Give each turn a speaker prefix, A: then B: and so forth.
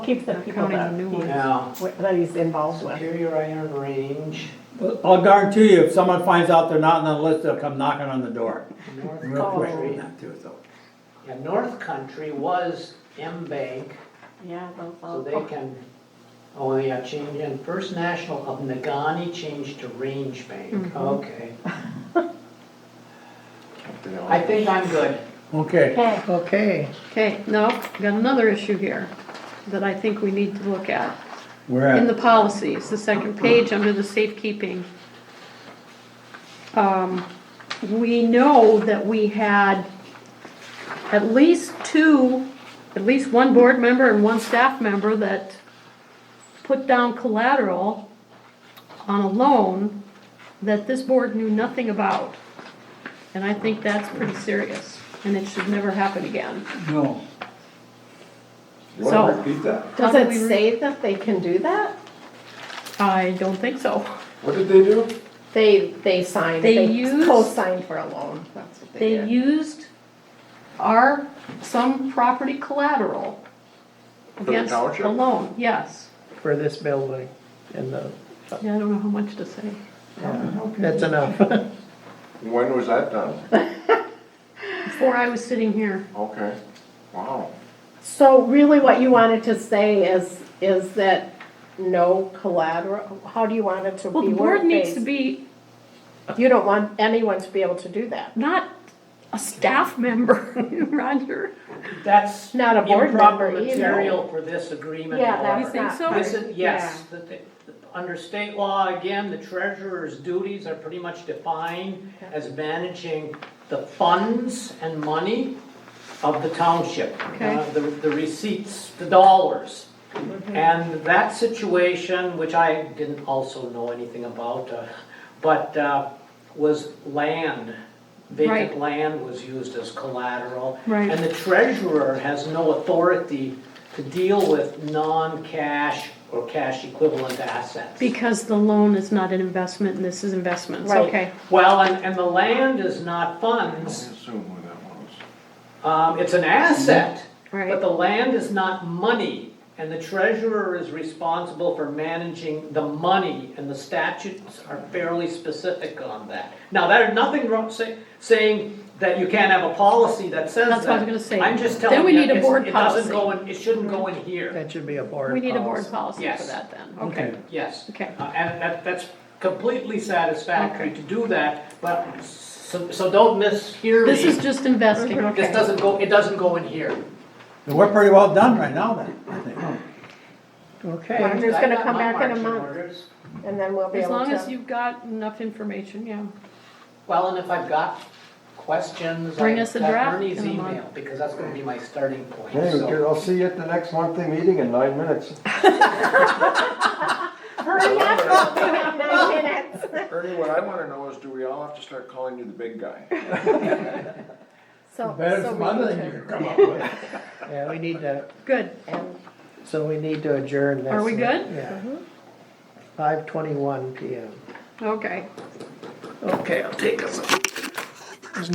A: Keep the people
B: Counting
A: that,
B: the new
A: he-
B: ones.
C: Now,
A: wi- that he's involved with.
C: Superior Iron Range,
D: But I'll guarantee you, if someone finds out they're not on the list, they'll come knocking on the door.
C: North
D: Real quick.
C: Country.
D: Not too, so.
C: Yeah, North Country was M Bank,
B: Yeah, those
C: so they can, oh, yeah, change, and First National of Nagani changed to Range
A: Mm-hmm.
C: Bank, okay. I think I'm good.
D: Okay,
A: Okay,
E: Okay,
B: Okay, now, got another issue here that I think we need to look at.
D: we're
B: In the
D: at,
B: policies, the second page, under the safekeeping. Um, We know that we had at least two, at least one board member and one staff member that put down collateral on a loan that this board knew nothing about. And I think that's pretty serious, and it should never happen again.
D: no,
F: You wanna
B: So-
F: repeat that?
A: does
B: How do we
A: it
B: re-
A: say that they can do that?
B: I don't think so.
F: What did they do?
A: They, they signed,
B: They
A: they
B: used-
A: co-signed for a loan, that's what they
B: They
A: did.
B: used our, some property collateral
F: the
B: against
F: township?
B: a loan, yes.
E: for this building and
C: uh,
E: the,
B: Yeah, I don't know how much to say.
E: that's enough.
F: When was that done?
B: Before I was sitting here,
F: Okay, wow.
A: So really what you wanted to say is, is that no collateral, how do you want it to
B: well,
A: be
B: the board needs to
A: word-based?
B: be
A: You don't want anyone to be able to do that.
B: not a staff member, Roger.
C: That's
A: Not a board
C: improper
A: member either.
C: material for this agreement.
A: Yeah, that's
C: Laura.
B: think
A: not.
B: so?
A: part-
C: This is, yes, the- the- under state law, again, the treasurer's duties are pretty much defined as managing the funds and money of the township.
B: Okay. Mm-hmm.
C: uh, The the receipts, the dollars. And that situation, which I didn't also know anything about, uh, but uh, was land.
B: Right.
C: Vacant land was used as collateral.
B: Right.
C: And the treasurer has no authority to deal with non-cash or cash equivalent assets.
B: Because the loan is not an investment and this is investments,
A: Right.
B: okay.
C: Well, and, and the land is not
F: I
C: funds,
F: assume who that was.
C: um, it's an asset.
B: Mm-hmm. Right.
C: But the land is not money, and the treasurer is responsible for managing the money, and the statutes are fairly specific on that. Now, there's nothing wrong say, saying that you can't have a policy that says that.
B: That's what I was gonna say.
C: I'm just
B: Then
C: telling you,
B: we need a
C: it's-
B: board
C: it
B: policy.
C: doesn't go in, it shouldn't go in here,
E: That should be a board
B: We need a board
E: policy.
B: policy for
C: Yes.
B: that then,
D: okay.
B: okay.
C: yes.
B: Okay.
C: Uh, And that, that's completely satisfactory
B: Okay.
C: to do that, but, so, so don't mishear me.
B: This is just investing,
C: This
B: okay.
C: doesn't go, it doesn't go in here.
D: And we're pretty well done right now then, I think.
E: Okay,
A: Roger's
C: I
A: gonna
C: got
A: come
C: my
A: back in a
C: marching
A: month,
C: orders.
A: and then we'll be
B: As
A: able
B: long as
A: to,
B: you've got enough information, yeah.
C: Well, and if I've got questions,
B: Bring
C: I've
B: us a
C: got
B: draft
C: Ernie's
B: in a month.
C: email, because that's gonna be my starting point,
F: Hey,
C: so.
F: I'll see you at the next monthly meeting in nine minutes.
A: hurry up, we have nine minutes.
F: Ernie, what I wanna know is, do we all have to start calling you the big guy?
A: So,
D: Better
A: so
D: some
A: we
D: other
A: need
D: than you
A: to.
D: could come up with.
E: yeah, we need to,
B: Good,
A: and-
E: so we need to adjourn this.
B: Are we good? Uh-huh.
E: Yeah. Five twenty-one PM.
B: okay.
E: Okay, I'll take a look.